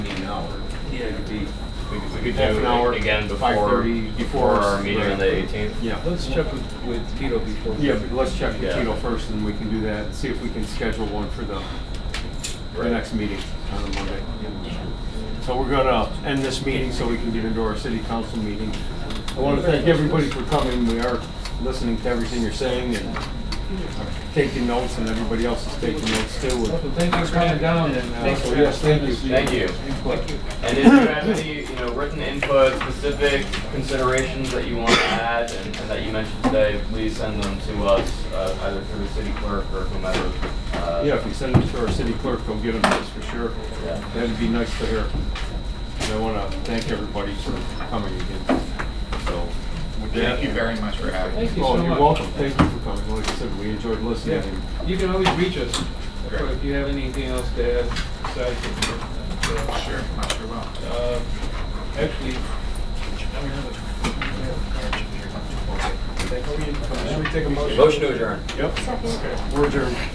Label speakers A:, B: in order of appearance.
A: Yeah, it could be.
B: We could, we could
A: Half an
B: do
A: hour,
B: it again before,
A: 5:30
B: before our meeting on the
A: right.
B: 18th.
A: Yeah, let's check with, with Tito before. Yeah, but let's check with
B: Yeah.
A: Tito first and we can do that and see if we can schedule one for the, the
B: Right.
A: next meeting on a Monday. So we're gonna end this meeting so we can get into our city council meeting. I wanna thank everybody for coming. We are listening to everything you're saying and taking notes and everybody else is taking notes too.
C: Thank you for coming down and. uh,
A: So yes, thank you.
B: Thank you. And if you have any, you know, written input, specific considerations that you want to add and and that you mentioned today, please send them to us, uh, either through the city clerk or whomever. uh,
A: Yeah, if you send them to our city clerk, they'll get them to us for sure.
B: Yeah.
A: That'd be nice to hear. And I want to thank everybody for coming again. So, with that-
D: Thank you very much for having me.
C: Thank you so
A: Oh,
C: much.
A: you're welcome. Thank you for coming. Like I said, we enjoyed listening.
C: Yeah,
A: and-
C: you can always reach us
D: Great.
C: if you have anything else to add besides what
D: Sure, I sure
C: you-
D: will.
C: uh, Actually,
B: Motion to adjourn.
A: Yep. We're adjourned.